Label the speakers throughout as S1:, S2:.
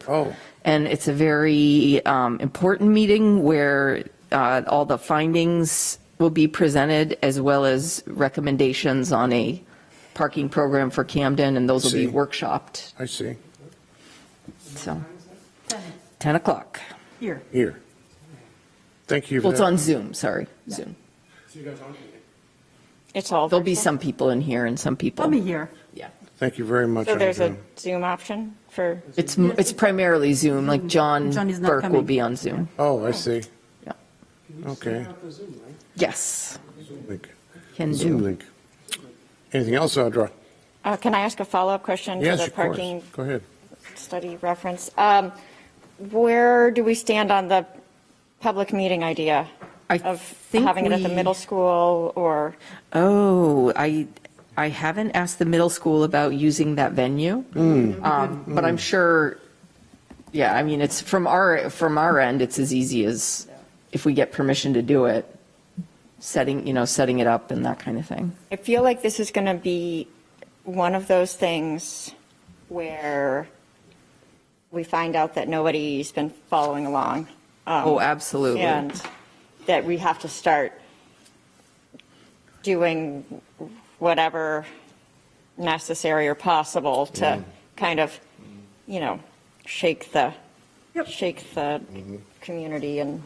S1: group.
S2: Oh.
S1: And it's a very um, important meeting where uh, all the findings will be presented as well as recommendations on a parking program for Camden, and those will be
S2: See.
S1: workshopped,
S2: I see,
S1: so. 10 o'clock.
S3: Here.
S2: here. Thank you for
S1: Well, it's
S2: that.
S1: on Zoom, sorry, Zoom.
S4: It's all
S1: There'll be
S4: virtual.
S1: some people in here and some people.
S3: I'll be here.
S1: Yeah.
S2: Thank you very much.
S4: So there's a
S2: Andrew.
S4: Zoom option for,
S1: It's, it's primarily Zoom, like John
S3: John is not
S1: Burke will
S3: coming.
S1: be on Zoom.
S2: Oh, I see.
S1: Yeah.
S2: Okay.
S1: Yes,
S2: Link.
S1: can
S2: Zoom
S1: do.
S2: link. Anything else, Audra?
S4: uh, can I ask a follow-up question to
S2: Yes,
S4: the
S2: of course.
S4: parking
S2: Go ahead.
S4: study reference? Um, Where do we stand on the public meeting idea
S1: I
S4: of
S1: think
S4: having it at the
S1: we-
S4: middle school or?
S1: Oh, I, I haven't asked the middle school about using that venue. Um, But I'm sure, yeah, I mean, it's from our, from our end, it's as easy as if we get permission to do it, setting, you know, setting it up and that kind of thing.
S4: I feel like this is going to be one of those things where we find out that nobody's been following along. um,
S1: Oh, absolutely.
S4: And that we have to start doing whatever necessary or possible to kind of, you know, shake the, shake the community and,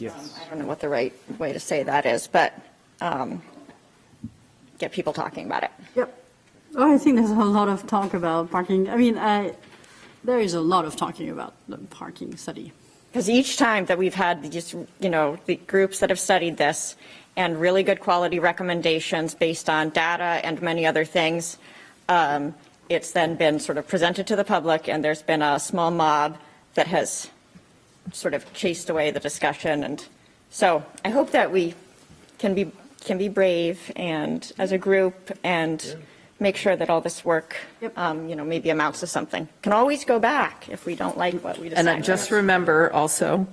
S4: um, I don't know what the right way to say that is, but um, get people talking about it.
S3: Yep. Oh, I think there's a lot of talk about parking. I mean, I, there is a lot of talking about the parking study.
S4: Because each time that we've had these, you know, the groups that have studied this and really good quality recommendations based on data and many other things, um, it's then been sort of presented to the public and there's been a small mob that has sort of chased away the discussion. And so I hope that we can be, can be brave and as a group and make sure that all this work,
S3: Yep.
S4: um, you know, maybe amounts to something. Can always go back if we don't like what we decide.
S1: And I just remember also,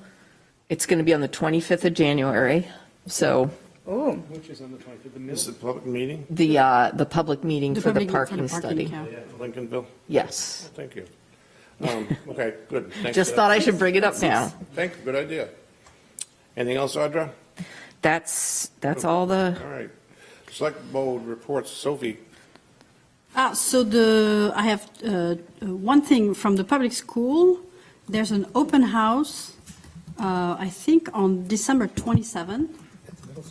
S1: it's going to be on the 25th of January, so
S4: Ooh.
S5: Which is on the 25th, the
S2: This
S5: middle.
S2: is a public meeting,
S1: the, uh, the public meeting for the
S3: public-
S1: parking study.
S3: yeah.
S2: Lincolnville.
S1: Yes.
S2: Thank you. Um, Okay, good. Thanks
S1: Just
S2: for
S1: thought
S2: that.
S1: I should bring it up now.
S2: Thank you, good idea. Anything else, Audra?
S1: That's, that's all the,
S2: All right. Select Board reports, Sophie.
S3: Ah, so the, I have uh, one thing from the public school. There's an open house, uh, I think on December 27th. At the middle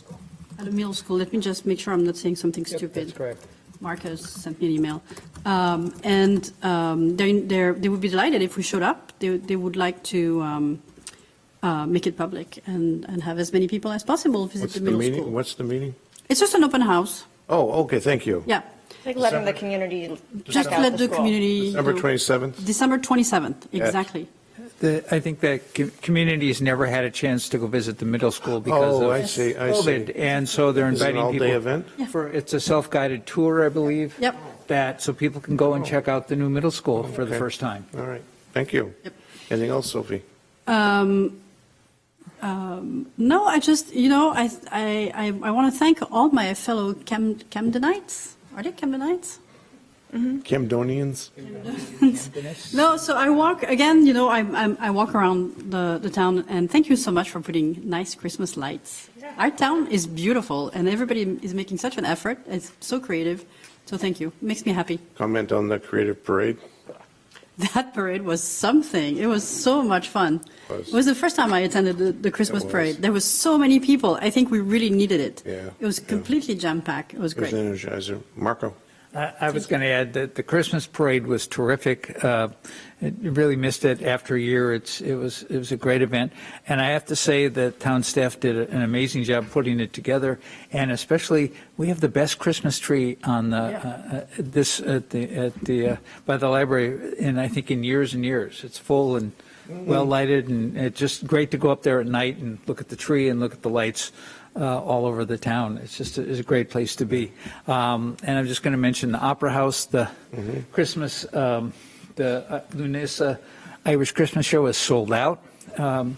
S3: school. Let me just make sure I'm not saying something stupid.
S5: correct.
S3: Marcus sent me an email. Um, And um, they they're- they would be delighted if we showed up. They they would like to um, uh, make it public and and have as many people as possible visit
S2: What's
S3: the
S2: the
S3: middle
S2: meeting,
S3: school.
S2: what's the meeting?
S3: It's just an open house,
S2: Oh, okay, thank you.
S3: yeah.
S4: Like letting the community check
S3: Just
S4: out
S3: let the
S4: school.
S3: community.
S2: December
S3: know.
S2: 27th?
S3: December 27th, exactly.
S6: The, I think that com- community's never had a chance to go visit the middle school because
S2: Oh,
S6: of
S2: I see, I see.
S6: COVID, and so they're
S2: Is it an
S6: inviting
S2: all-day
S6: people.
S2: event?
S3: Yeah.
S6: For, it's a self-guided tour, I believe.
S3: Yep.
S6: That, so people can go and check out the new middle school for the
S2: Oh. Okay.
S6: first time.
S2: All right, thank you.
S3: Yep.
S2: Anything else, Sophie?
S3: Um, um, No, I just, you know, I, I, I- I want to thank all my fellow Cam Camdenites. Are they Camdenites?
S2: Camdonians?
S3: No, so I walk again. You know, I I'm, I walk around the, the town, and thank you so much for putting nice Christmas lights. Our town is beautiful, and everybody is making such an effort. It's so creative. So thank you. Makes me happy.
S2: Comment on the creative parade?
S3: That parade was something. It was so much fun.
S2: Was.
S3: It was the first time I attended the, the Christmas
S2: It was.
S3: parade. There was so many people. I think we really needed it.
S2: Yeah,
S3: It was
S2: yeah.
S3: completely jam packed. It was
S2: It was
S3: great.
S2: an energizer. Marco?
S6: I I was going to add that the Christmas parade was terrific. Uh, It you really missed it after a year. It's, it was, it was a great event. And I have to say that town staff did an amazing job putting it together. And especially, we have the best Christmas tree on the, uh, uh, this, at the, at the, uh, by the library, and I think in years and years. It's full and well lighted and it's just great to go up there at night and look at the tree and look at the lights uh, all over the town. It's just, a- it's a great place to be. Um, And I'm just going to mention the Opera House, the Christmas, um, the uh, Lunesa Irish Christmas Show is sold out. Um,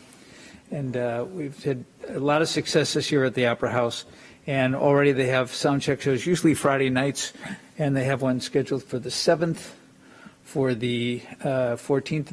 S6: And uh, we've had a lot of success this year at the Opera House. And already they have sound check shows, usually Friday nights, and they have one scheduled for the 7th, for the uh, 14th,